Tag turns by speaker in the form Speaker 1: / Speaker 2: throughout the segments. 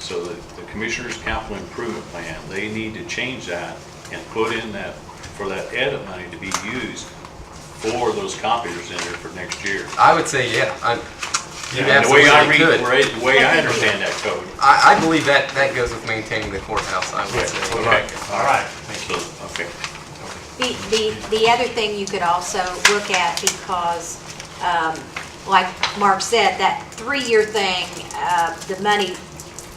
Speaker 1: So the, the Commissioners' Capital Improvement Plan, they need to change that and put in that, for that edit money to be used for those copiers in there for next year.
Speaker 2: I would say, yeah, I'm, you
Speaker 1: And the way I
Speaker 2: absolutely
Speaker 1: read,
Speaker 2: could.
Speaker 1: the way I understand that code.
Speaker 2: I, I believe that, that goes with maintaining the courthouse, I would say.
Speaker 1: Okay,
Speaker 3: All right,
Speaker 1: so, okay.
Speaker 4: The, the, the other thing you could also look at, because, um, like Mark said, that three-year thing, uh, the money,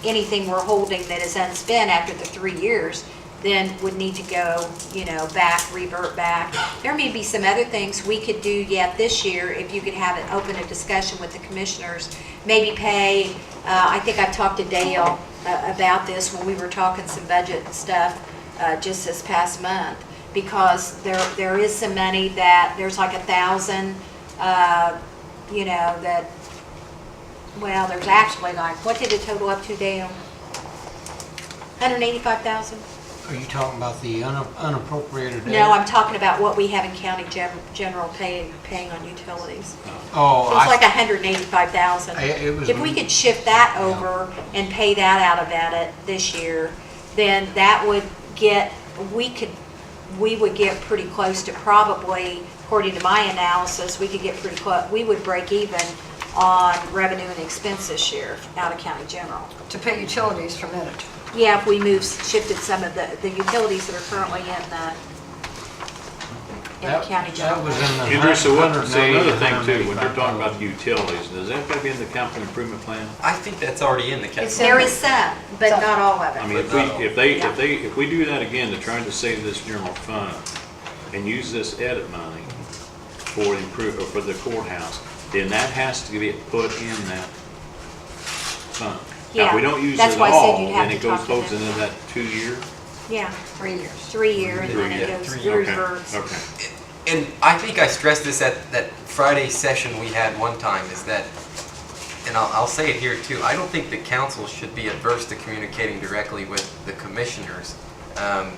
Speaker 4: anything we're holding that is unspent after the three years, then would need to go, you know, back, revert back. There may be some other things we could do yet this year, if you could have an open a discussion with the commissioners, maybe pay, uh, I think I talked to Dale uh, about this when we were talking some budget and stuff, uh, just this past month, because there, there is some money that, there's like a thousand, uh, you know, that, well, there's actually like, what did it total up to, Dale? Hundred eighty-five thousand?
Speaker 5: Are you talking about the un- unappropriated?
Speaker 4: No, I'm talking about what we have in county gen- general paying, paying on utilities.
Speaker 5: Oh,
Speaker 4: It's like
Speaker 5: I,
Speaker 4: a hundred and eighty-five thousand.
Speaker 5: I- it was-
Speaker 4: If we could shift that over and pay that out of that it this year, then that would get, we could, we would get pretty close to probably, according to my analysis, we could get pretty close, we would break even on revenue and expense this year out of county general.
Speaker 6: to pay utilities from it.
Speaker 4: Yeah, if we moved, shifted some of the, the utilities that are currently in the, in the
Speaker 5: that
Speaker 4: county
Speaker 5: that
Speaker 4: general.
Speaker 5: was in the.
Speaker 1: Andrew, so what,
Speaker 5: hundred-
Speaker 1: say another thing too, when they're
Speaker 5: 185.
Speaker 1: talking about the utilities, does that gotta be in the capital improvement plan?
Speaker 2: I think that's already in the
Speaker 6: It's
Speaker 2: capital.
Speaker 4: There is some, but not all of it.
Speaker 1: I mean, if we, if they, if they, if we do that again, to try to save this general fund and use this edit money for improve, or for the courthouse, then that has to get put in that fund. Now, if we
Speaker 4: Yeah,
Speaker 1: don't use
Speaker 4: that's
Speaker 1: it
Speaker 4: why I said
Speaker 1: all,
Speaker 4: you'd have
Speaker 1: then it
Speaker 4: to
Speaker 1: goes
Speaker 4: talk to
Speaker 1: goes
Speaker 4: them.
Speaker 1: into that two-year?
Speaker 4: Yeah,
Speaker 6: Three years.
Speaker 4: three year and then it
Speaker 2: Yeah,
Speaker 4: goes
Speaker 2: three
Speaker 4: through
Speaker 1: Okay,
Speaker 4: reverse.
Speaker 1: Okay.
Speaker 2: And I think I stressed this at that Friday session we had one time, is that, and I'll, I'll say it here too, I don't think the council should be adverse to communicating directly with the commissioners, um,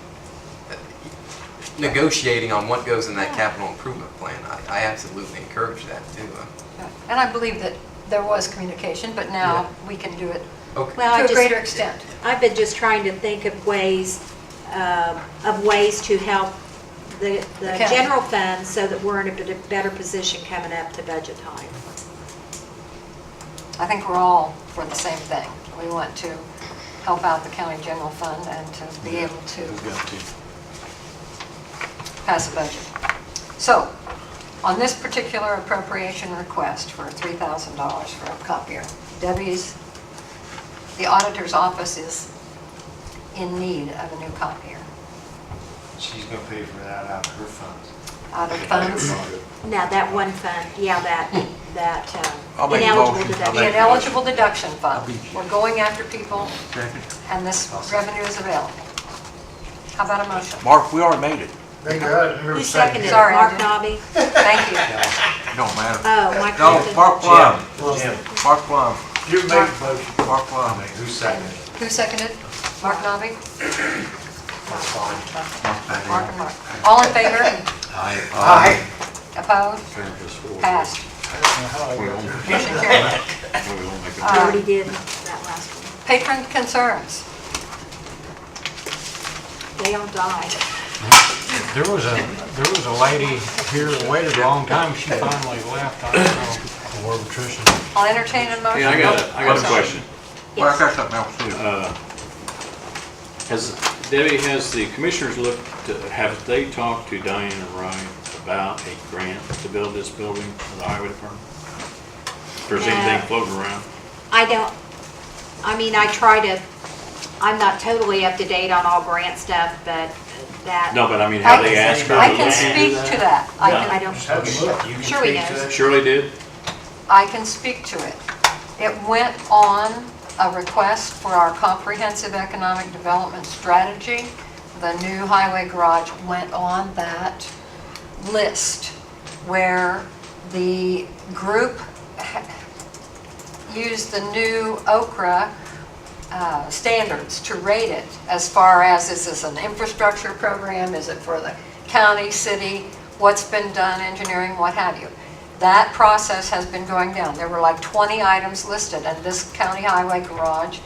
Speaker 2: negotiating on what goes in that capital improvement plan. I, I absolutely encourage that too.
Speaker 6: And I believe that there was communication, but now we can do it
Speaker 2: Okay,
Speaker 4: Well, I
Speaker 6: to a
Speaker 4: just-
Speaker 6: greater extent.
Speaker 4: I've been just trying to think of ways, uh, of ways to help the, the
Speaker 6: Okay.
Speaker 4: general fund so that we're in a bit- better position coming up to budget time.
Speaker 6: I think we're all for the same thing. We want to help out the county general fund and to be able to pass a budget. So, on this particular appropriation request for $3,000 for a copier, Debbie's, the auditor's office is in need of a new copier.
Speaker 3: she's gonna pay for that out of her funds.
Speaker 6: Out of funds,
Speaker 4: Now, that one fund, yeah, that, that
Speaker 2: I'll
Speaker 4: uh,
Speaker 2: make a
Speaker 4: ineligible
Speaker 2: motion.
Speaker 6: The
Speaker 4: deduction.
Speaker 6: ineligible deduction fund. We're going after people, and this revenue is available. How about a motion?
Speaker 7: Mark, we already made it.
Speaker 3: Thank God,
Speaker 4: Who seconded it?
Speaker 6: Sorry, I
Speaker 4: Mark
Speaker 6: didn't.
Speaker 4: Nobby?
Speaker 6: Thank you.
Speaker 7: It don't matter.
Speaker 4: Oh, Mike
Speaker 7: No,
Speaker 4: Clifton.
Speaker 7: Mark Plum,
Speaker 3: Jim,
Speaker 7: Mark Plum,
Speaker 3: you make the motion.
Speaker 7: Mark Plum.
Speaker 3: Who seconded it?
Speaker 6: Who seconded? Mark Nobby?
Speaker 3: That's fine.
Speaker 6: Mark and Mark. All in favor?
Speaker 3: Aye.
Speaker 6: Opposed? Passed. Motion carried.
Speaker 1: We won't make a-
Speaker 4: We Already did that last one.
Speaker 6: Patron concerns. Uh,
Speaker 4: They all died.
Speaker 5: There was a, there was a lady here that waited a long time, she finally left, I don't know. War patrician.
Speaker 6: I'll entertain a motion.
Speaker 1: Hey, I got a, I got a
Speaker 6: Sorry.
Speaker 1: question.
Speaker 7: Well,
Speaker 2: é
Speaker 7: I
Speaker 4: Yes.
Speaker 7: got something else too.
Speaker 1: Uh, Has, Debbie, has the commissioners looked, to- have they talked to Diane and Ryan about a grant to build this building for the highway department? If there's anything
Speaker 4: No.
Speaker 1: floating around?
Speaker 4: I don't, I mean, I try to, I'm not totally up to date on all grant stuff, but that.
Speaker 1: No, but I mean,
Speaker 6: I
Speaker 1: have they asked her?
Speaker 6: can- I
Speaker 1: to
Speaker 6: can
Speaker 1: look into
Speaker 6: speak to that. I
Speaker 1: No.
Speaker 4: I
Speaker 6: can,
Speaker 4: don't,
Speaker 3: Have a look. You can
Speaker 4: Sure we
Speaker 3: speak to
Speaker 4: know.
Speaker 3: that.
Speaker 1: Shirley did?
Speaker 6: I can speak to it. It went on a request for our comprehensive economic development strategy. The new highway garage went on that list where the group ha- used the new OKRA uh, standards to rate it as far as, is this an infrastructure program? Is it for the county, city? What's been done, engineering, what have you? That process has been going down. There were like 20 items listed, and this county highway garage